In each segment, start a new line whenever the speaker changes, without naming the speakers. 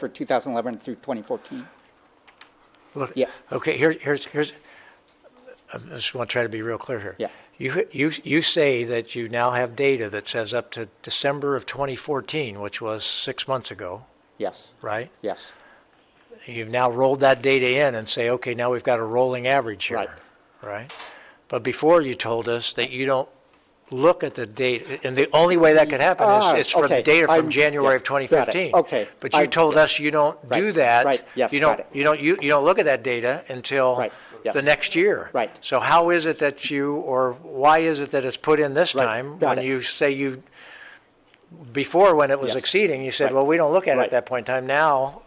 for 2011 through 2014.
Look,
Yeah.
Okay, here, here's, here's, I just want to try to be real clear here.
Yeah.
You, you, you say that you now have data that says up to December of 2014, which was six months ago,
Yes,
right?
yes,
You've now rolled that data in and say, okay, now we've got a rolling average here.
Right.
Right? But before you told us that you don't look at the data, and the only way that could happen
Ah,
is it's from
okay,
data from
I'm-
January
yes,
of
got it,
2015.
okay,
But you
I-
told us you don't do
right,
that.
right, yes,
You
got
don't,
it.
you don't, you you don't look at that data until
Right, yes.
the next year.
Right.
So how is it that you, or why is it that it's put in this
Right,
time?
got
When
it.
you say you, before when it was
Yes.
exceeding, you said,
Right.
well, we don't look at it at
Right.
that point in time. Now,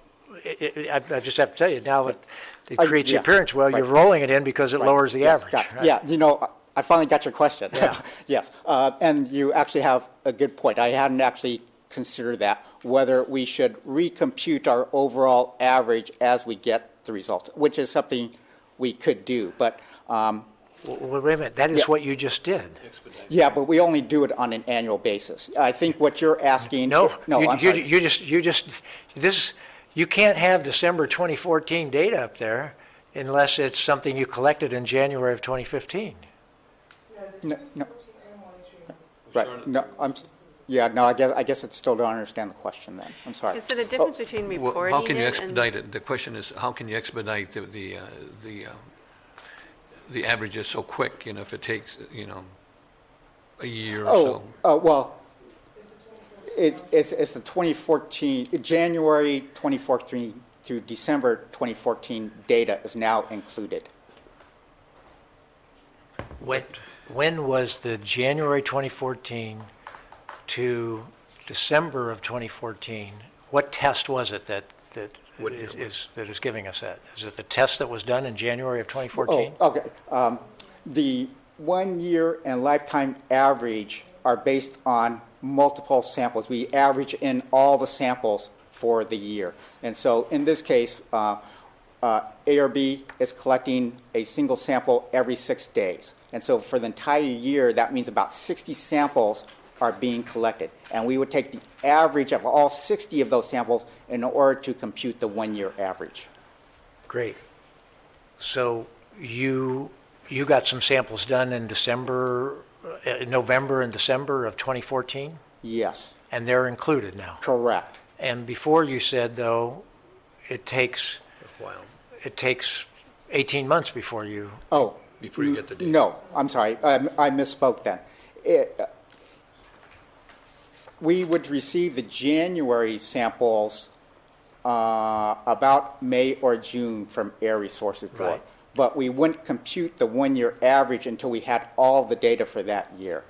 it- it- I I just have to tell you, now it it
I-
creates
Uh,
the
yeah,
appearance, well, you're
right.
rolling it in because it
Right.
lowers the
Yes,
average.
got it.
right?
Yeah, you know, I- I finally got your question.
Yeah.
yes, uh, and you actually have a good point. I hadn't actually considered that whether we should recompute our overall average as we get the results, which is something we could do. But um,
W- w- Wait a minute, that is what you just did.
yeah, but we only do it on an annual basis. I think what you're asking.
No,
no,
you
I'm
you-
sorry.
you just, you just, this, you can't have December 2014 data up there unless it's something you collected in January of 2015.
No, no. Right, no, I'm, s- yeah, no, I guess, I guess I still don't understand the question then, I'm sorry.
Is it a difference between
Well,
reporting it?
How can you
and-
expedite it? The question is, how can you expedite the, the, uh, the, uh, the averages so quick, you know, if it takes, you know, a year or
Oh,
so?
uh, well, it's, it's, it's the 2014, January 2014 through December 2014 data is now included.
When, when was the January 2014 to December of 2014? What test was it that, that is, is, that is giving us that? Is it the test that was done in January of 2014?
Oh, okay. Um, the one year and lifetime average are based on multiple samples. We average in all the samples for the year. And so in this case, uh, uh, ARB is collecting a single sample every six days. And so for the entire year, that means about 60 samples are being collected. And we would take the average of all 60 of those samples in order to compute the one year average.
Great. So you, you got some samples done in December, uh, November and December of 2014?
Yes,
And they're included now?
correct.
And before you said, though, it takes,
Wow.
it takes 18 months before you
Oh,
Before you get the data.
No, I'm sorry, I I misspoke then. It, uh, We would receive the January samples uh, about May or June from Air Resources Board.
Right.
But we wouldn't compute the one-year average until we had all the data for that year.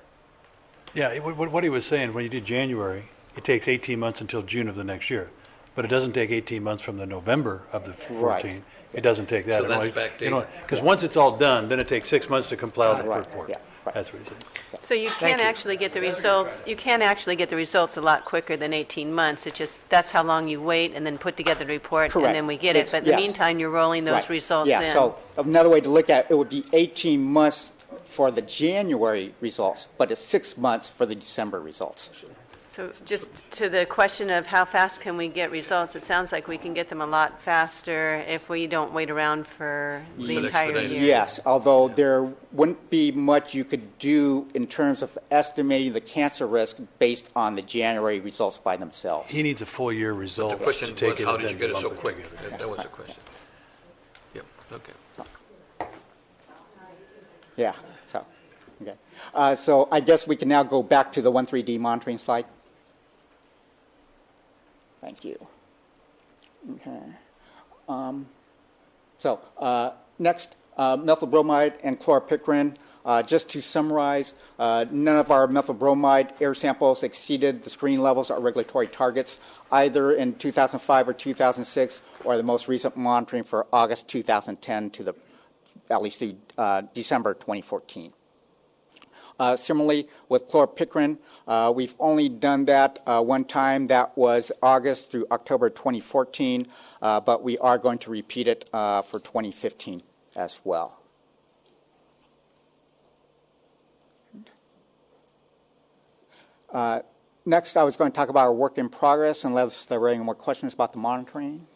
Yeah, it- what what he was saying, when you do January, it takes 18 months until June of the next year. But it doesn't take 18 months from the November of the
Right.
14. It doesn't take that.
So that's backdated.
Because once it's all done, then it takes six months to compile the
Right,
report.
yeah, right.
That's what he said.
So you can
you.
actually get the results, you can actually get the results a lot quicker than 18 months. It just, that's how long you wait and then put together the report and
Correct.
then we get it.
It's-
But in the
yes.
meantime, you're rolling those
Right.
results in.
Yeah, so another way to look at it, it would be 18 months for the January results, but it's six months for the December results.
So just to the question of how fast can we get results, it sounds like we can get them a lot faster if we don't wait around for the
But
entire
expedite it.
year.
Yes, although there wouldn't be much you could do in terms of estimating the cancer risk based on the January results by themselves.
He needs a full year
The
result to
question
take
was,
it
how
and
did you
then
get it
lump
so quick?
together.
That that was the question. Yep, okay.
Yeah, so, okay. Uh, So I guess we can now go back to the 1,3D monitoring slide. Thank you. Okay. Um, So uh, next, uh, methylbromide and chloropicrin. Uh, Just to summarize, uh, none of our methylbromide air samples exceeded the screen levels or regulatory targets either in 2005 or 2006, or the most recent monitoring for August 2010 to the, at least the uh, December 2014. Uh, Similarly, with chlorpicrin, uh, we've only done that uh, one time. That was August through October 2014, uh, but we are going to repeat it uh, for 2015 as well. Uh, Next, I was going to talk about our work in progress unless there are any more questions about the monitoring.